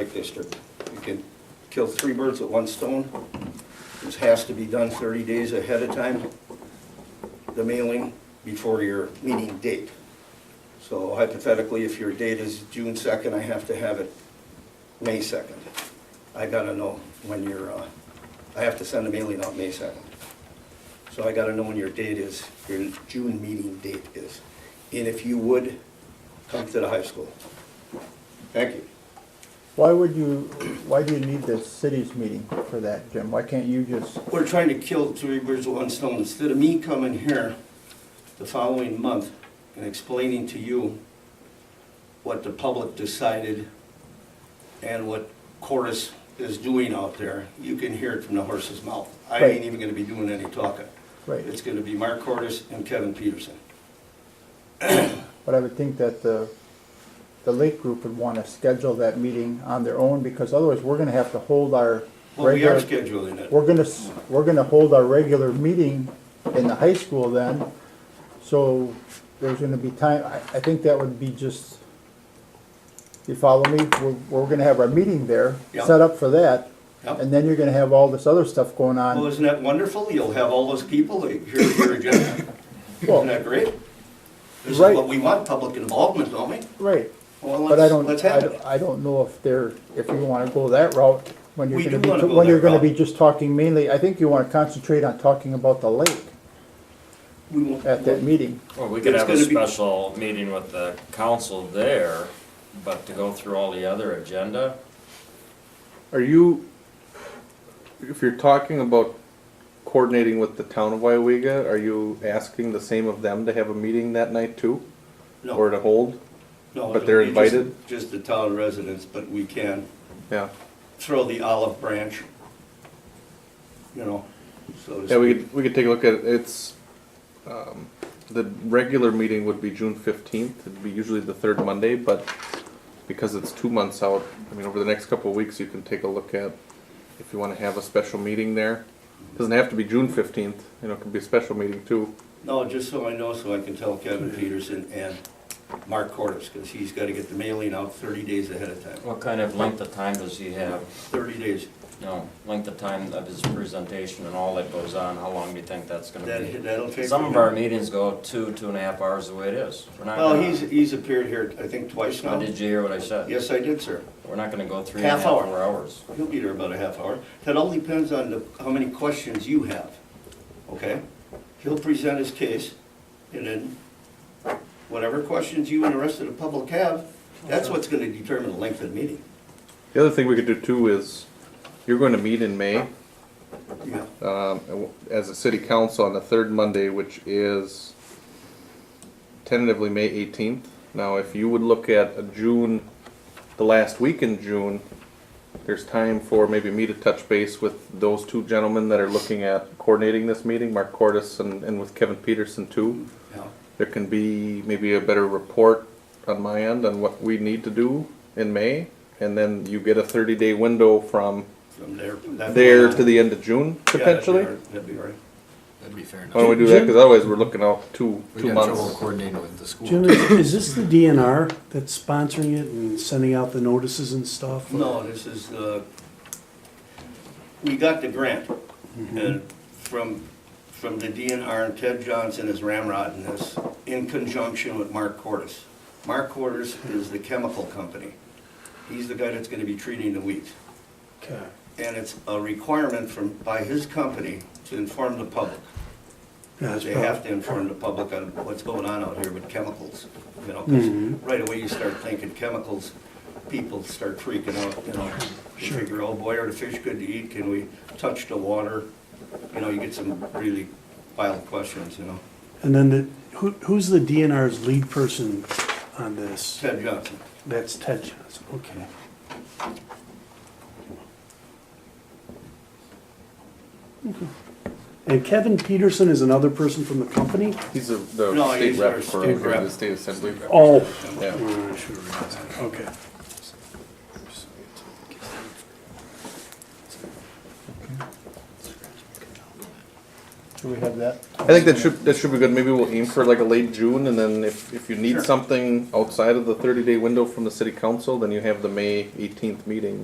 Lake District. You can kill three birds with one stone. This has to be done 30 days ahead of time, the mailing before your meeting date. So hypothetically, if your date is June 2nd, I have to have it May 2nd. I gotta know when your, uh, I have to send a mailing out May 2nd. So I gotta know when your date is, your June meeting date is. And if you would, come to the high school. Thank you. Why would you, why do you need the city's meeting for that, Jim? Why can't you just, We're trying to kill three birds with one stone. Instead of me coming here the following month and explaining to you what the public decided and what Chorus is doing out there, you can hear it from the horse's mouth. I ain't Right. even gonna be doing any talking. Right. It's gonna be Mark Cordes and Kevin Peterson. but I would think that the, the Lake Group would want to schedule that meeting on their own because otherwise we're going to have to hold our Well, we are regular. scheduling it. We're going to, we're going to hold our regular meeting in the high school then. So there's going to be time, I, I think that would be just, you follow me? We're, we're going to have our meeting there, Yeah. set up for that. Yeah. And then you're going to have all this other stuff going on. Well, isn't that wonderful? You'll have all those people, they hear your agenda. Isn't that great? This is Right. what we want, public involvement, don't we? Right, Well, but I let's, don't, let's I have it. don't, I don't know if they're, if you wanna go that route, when you're We gonna do wanna be, go when you're that gonna route. be just talking mainly, I think you wanna concentrate on talking about the lake We won't- at that meeting. Well, we could It's have a gonna be- special meeting with the council there, but to go through all the other agenda, Are you, if you're talking about coordinating with the town of Waiwega, are you asking the same of them to have a meeting that night too? No. Or to hold? No, But they're it'll be just- invited? Just the town residents, but we can Yeah. throw the olive branch, you know, so to Yeah, we speak. could, we could take a look at, it. it's, um, the regular meeting would be June fifteenth, it'd be usually the third Monday, but because it's two months out, I mean, over the next couple of weeks, you can take a look at if you wanna have a special meeting there. Doesn't have to be June fifteenth, you know, it could be a special meeting too. No, just so I know, so I can tell Kevin Peterson and Mark Cordes, because he's got to get the mailing out 30 days ahead of time, what kind of length of time does he have? 30 days. You know, length of time of his presentation and all that goes on, how long do you think that's gonna be? That, that'll take. Some of our meetings go two, two and a half hours the way it is. We're not Well, gonna- he's, he's appeared here, I think, twice Now, now. Did you hear what I said? Yes, I did, sir. We're not gonna go three and a Half half hour. hour hours. He'll be there about a half hour. That all depends on the, how many questions you have, okay? He'll present his case, and then whatever questions you and the rest of the public have, that's what's gonna determine the length of the meeting. The other thing we could do too is, you're going to meet in May Yeah. um, as a city council on the third Monday, which is tentatively May 18th. Now, if you would look at a June, the last week in June, there's time for maybe me to touch base with those two gentlemen that are looking at coordinating this meeting, Mark Cordis and, and with Kevin Peterson too Yeah. there can be maybe a better report on my end on what we need to do in May. And then you get a thirty day window from From there. there to the end of June Yeah, that'd be all potentially. right. That'd be all right. That'd be fair Why don't enough. we do that? Cause otherwise we're looking out two, We two got trouble months. coordinating with the school. Jim, is is this the DNR that's sponsoring it and sending out the notices and stuff? No, this is, uh, we got the grant, and from, from the DNR, and Ted Johnson is ramrodding this, in conjunction with Mark Cordes. Mark Cordes is the chemical company. He's the guy that's gonna be treating the weeds. Okay. And it's a requirement from, by his company to inform the public. Yeah, that's They have prob- to inform the public on what's going on out here with chemicals, you know, 'cause Mhm. right away you start thinking chemicals, people start freaking out, you know. You Sure. figure, oh boy, are the fish good to eat, can we touch the water? You know, you get some really wild questions, you know. And then the, who, who's the DNR's lead person on this? Ted Johnson, That's Ted Johnson, okay. Okay. And Kevin Peterson is another person from the company? He's the, the No, state he's our rep for state for rep. the state assembly. Oh. Yeah. Uh, sure, right. Okay. Do we have that? I think that should, that should be good. Maybe we'll aim for like a late June and then if, if you Sure. need something outside of the thirty day window from the city council, then you have the May eighteenth meeting.